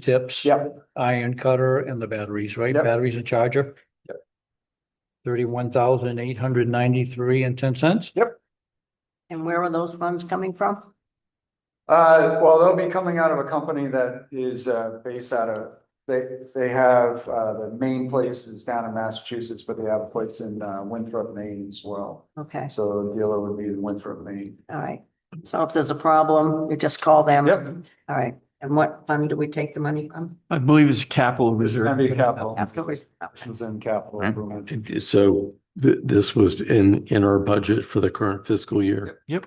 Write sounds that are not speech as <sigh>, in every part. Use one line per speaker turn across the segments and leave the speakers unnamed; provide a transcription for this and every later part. tips.
Yep.
Iron cutter and the batteries, right?
Yep.
Batteries and charger.
Yep.
Thirty-one thousand eight hundred ninety-three and ten cents.
And where are those funds coming from?
Uh, well, they'll be coming out of a company that is, uh, based out of, they, they have, uh, the main place is down in Massachusetts, but they have a place in, uh, Winthrop, Maine as well.
Okay,
So the dealer would be in Winthrop, Maine.
all right. So if there's a problem, you just call them.
Yep.
All right. And what fund do we take the money from?
I believe it's capital
This is gonna be
reserve.
capital.
Afterwards.
This was in capital
Right.
improvement.
So th- this was in, in our budget for the current fiscal year?
Yep.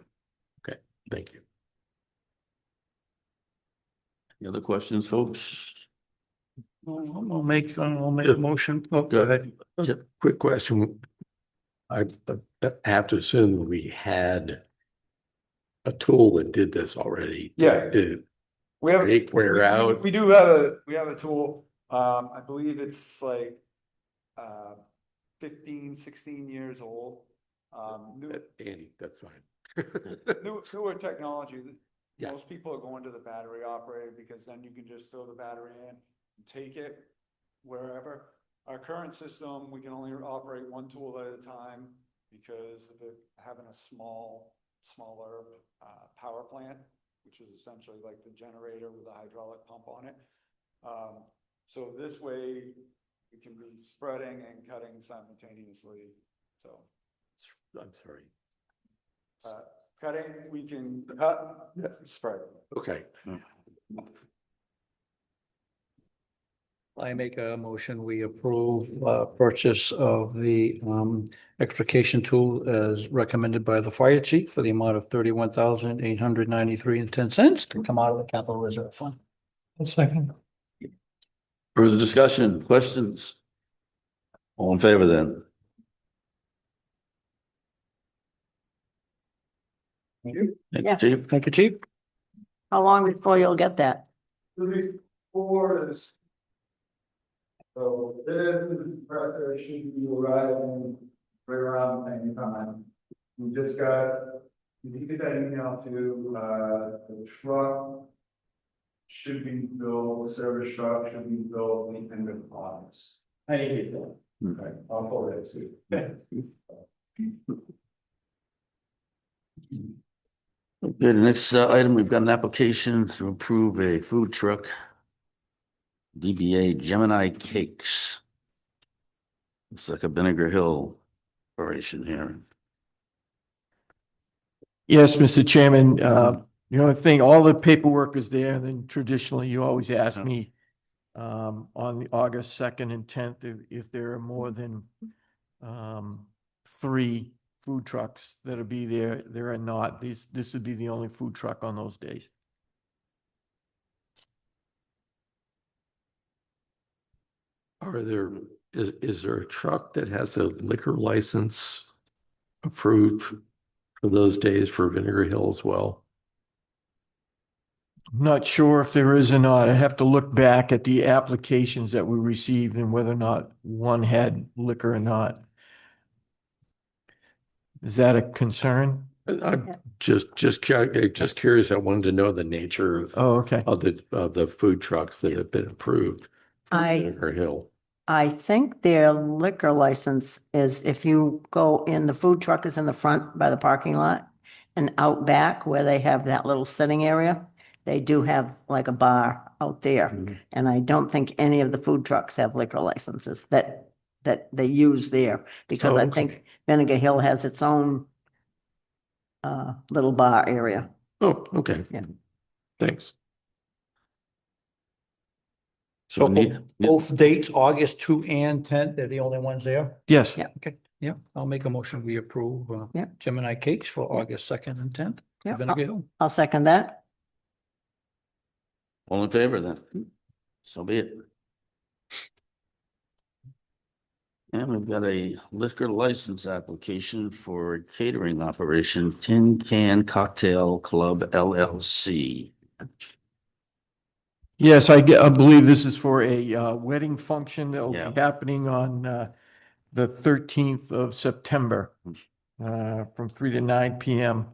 Okay, thank you.
Any other questions, folks?
I'll make, I'll make a motion. Oh, go ahead.
Chip?
Quick question. I I have to assume we had a tool that did this already.
Yeah.
Did
We have.
take
we-
wear out?
We do have a, we have a tool, um, I believe it's like, uh, fifteen, sixteen years old. Um, new-
Andy, that's fine. <laughs>
new, newer technology, th-
Yeah.
most people are going to the battery operated because then you can just throw the battery in, and take it wherever. Our current system, we can only operate one tool at a time because of it having a small, smaller, uh, power plant, which is essentially like the generator with a hydraulic pump on it. Um, so this way, we can be spreading and cutting simultaneously, so.
I'm sorry.
Uh, Cutting, we can cut, spread.
Okay,
I make a motion, we approve uh purchase of the um extrication tool as recommended by the fire chief for the amount of thirty-one thousand eight hundred ninety-three and ten cents to come out of the capital reserve fund. second.
Further discussion, questions? All in favor then?
Thank you.
Thank
Yeah.
you, Chief.
Thank you, chief.
How long before you'll get that?
Thirty-four is. So this preparation will arrive in right around the same time. We just got, we did that email to, uh, the truck. Should be built, the service truck should be built in the end of August. I need it done.
Hmm.
Okay, I'll forward it to you.
Okay, the next uh, item, we've got an application to approve a food truck. DBA Gemini Cakes. It's like a Vinegar Hill operation here.
Yes, Mr. Chairman, uh, the only thing, all the paperwork is there, and then traditionally you always ask
Yeah.
me um, on the August second and tenth, if, if there are more than um, three food trucks that'll be there, there are not. These, this would be the only food truck on those days.
are there, is, is there a truck that has a liquor license approved for those days for Vinegar Hill as well?
I'm Not sure if there is or not. I have to look back at the applications that we received and whether or not one had liquor or not. Is that a concern?
And I'm
Yeah.
just, just, cu- just curious. I wanted to know the nature of,
Oh, okay.
of the, of the food trucks that have been approved. for
I-
Vinegar Hill.
I think their liquor license is if you go in, the food truck is in the front by the parking lot. And out back where they have that little sitting area, they do have like a bar out there. And I don't think any of the food trucks have liquor licenses that, that they use there, because
Oh,
I
okay.
think Vinegar Hill has its own uh, little bar area.
Oh, okay.
Yeah.
Thanks.
So
we need-
both- both dates, August two and ten, they're the only ones there?
Yes.
Yeah.
Okay, yeah, I'll make a motion, we approve uh,
Yeah.
Gemini Cakes for August second and tenth.
Yeah, I'll- I'll second that.
All in favor then? So be it. And we've got a liquor license application for a catering operation, Tin Can Cocktail Club LLC.
Yes, I, ge- I believe this is for a uh, wedding function that will
Yeah.
be happening on uh, the thirteenth of September uh, from three to nine PM.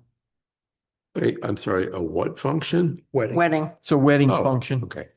Wait, I'm sorry, a what function?
Wedding,
Wedding,
It's a wedding
Oh,
function.
Okay.